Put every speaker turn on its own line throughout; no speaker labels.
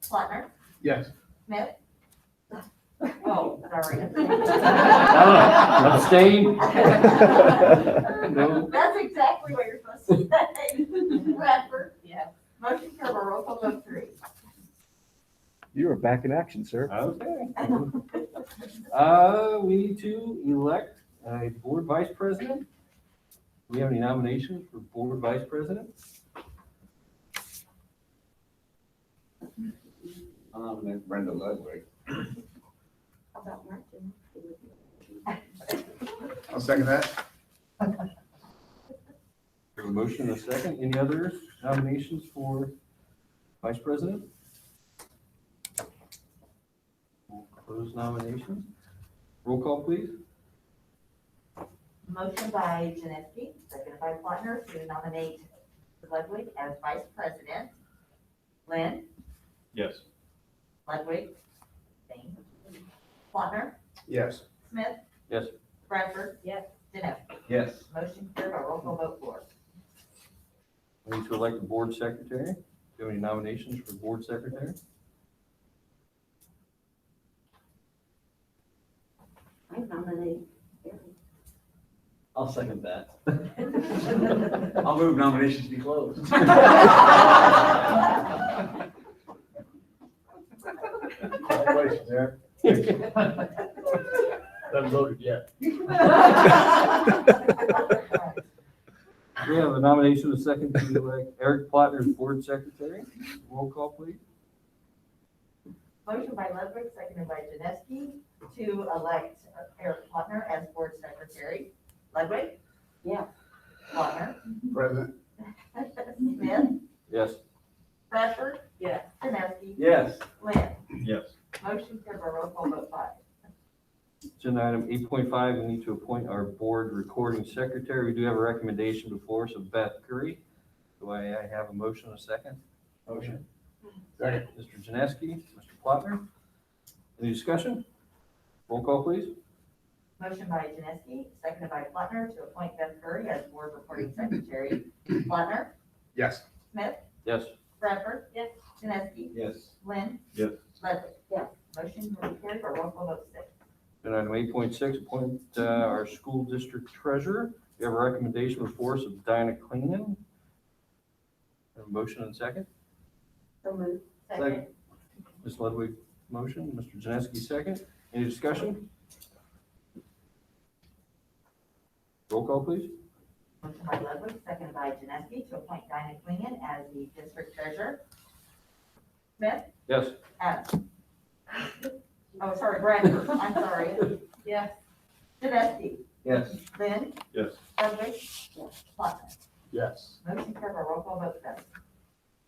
Swanner,
Yes.
Mitt. Oh, sorry.
Abstain?
No.
That's exactly what you're supposed to say. Bradford,
Yeah.
motion for a roll call vote three.
You are back in action, sir.
Okay. Uh, we need to elect a board vice president. Do we have any nominations for board vice president?
Um, and Brenda Ludwig.
How about Martin?
I'll second that.
There's a motion and a second. Any other nominations for vice president? We'll Close nominations. Roll call, please.
Motion by Janeski, second by Plattner, to nominate Ludwig as vice president. Lynn,
Yes.
Ludwig, same. Plattner,
Yes.
Smith.
Yes.
Bradford.
Yes.
Janeski.
Yes.
Motion carried by roll call vote four.
We need to elect the board secretary. Do you have any nominations for board secretary?
I nominate
I'll second that. I'll move nominations to be closed.
Congratulations, Eric.
Haven't voted yet.
We have a nomination, a second to elect Eric Plattner as board secretary. Roll call, please.
Motion by Ludwig, seconded by Janeski, to elect Eric Plattner as board secretary. Ludwig?
Yeah.
Plattner?
President.
Smith?
Yes.
Bradford?
Yes.
Janeski?
Yes.
Lynn?
Yes.
Motion carried by roll call vote five.
Agenda item eight point five, we need to appoint our board recording secretary. We do have a recommendation before us of Beth Curry. Do I I have a motion, a second?
Motion. Second.
Mr. Janeski, Mr. Plattner. Any discussion? Roll call, please.
Motion by Janeski, seconded by Plattner, to appoint Beth Curry as board reporting secretary. Plattner?
Yes.
Smith?
Yes.
Bradford?
Yes.
Janeski?
Yes.
Lynn?
Yes.
Ludwig?
Yes.
Motion carried by roll call vote six.
Agenda item eight point six, appoint uh, our school district treasurer. We have a recommendation before us of Diana Cleanan. Have a motion and a second?
So moved.
Second.
Ms. Ludwig, motion, Mr. Janeski, second. Any discussion? Roll call, please.
Motion by Ludwig, seconded by Janeski, to appoint Dinah Quinian as the district treasurer. Smith?
Yes.
Adams. Oh, sorry, Bradford, I'm sorry.
Yes.
Janeski?
Yes.
Lynn?
Yes.
Ludwig? Plattner?
Yes.
Motion carried by roll call vote seven.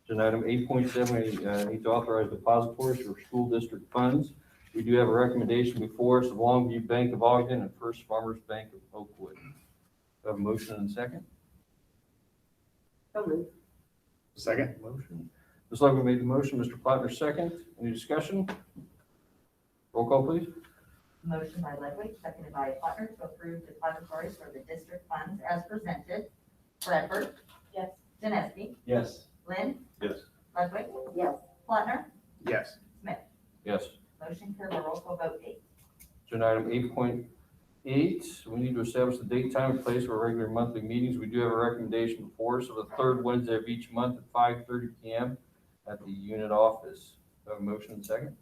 Agenda item eight point seven, we uh, need to authorize depositories for school district funds. We do have a recommendation before us of Longview Bank of Ogden and First Farmers Bank of Oakwood. Do I Have a motion and a second?
So moved.
Second.
Motion. Ms. Ludwig made the motion, Mr. Plattner, second. Any discussion? Roll call, please.
Motion by Ludwig, seconded by Plattner, to approve depositories for the district funds as presented. Bradford?
Yes.
Janeski?
Yes.
Lynn?
Yes.
Ludwig?
Yes.
Plattner?
Yes.
Yes.
Motion carried by roll call vote eight.
Agenda item eight point eight, we need to establish the date, time, and place for our regular monthly meetings. We do have a recommendation before us of the third Wednesday of each month at five thirty PM at the unit office. Do I Have a motion and second?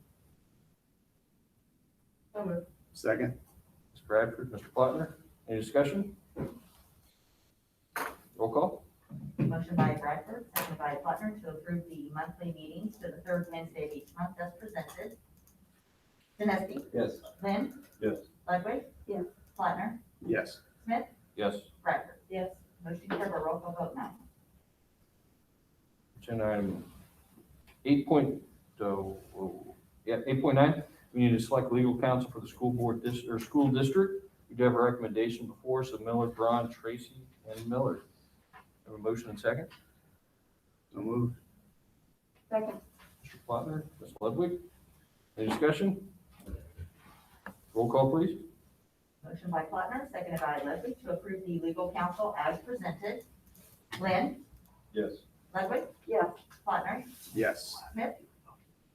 So moved.
Second.
Ms. Bradford, Mr. Plattner, any discussion? Roll call?
Motion by Bradford, second by Plattner, to approve the monthly meetings to the third Wednesday of each month as presented. Janeski?
Yes.
Lynn?
Yes.
Ludwig?
Yes.
Plattner?
Yes.
Yes.
Bradford?
Yes.
Motion carried by roll call vote nine.
Agenda item eight point, oh, oh, yeah, eight point nine, we need to select legal counsel for the school board dis, or school district. We do have a recommendation before us of Miller, Braun, Tracy, and Miller. Have a motion and second?
So moved.
Second.
Mr. Plattner, Ms. Ludwig, any discussion? Roll call, please.
Motion by Plattner, seconded by Ludwig, to approve the legal counsel as presented. Lynn?
Yes.
Ludwig?
Yes.
Plattner?
Yes.
Smith?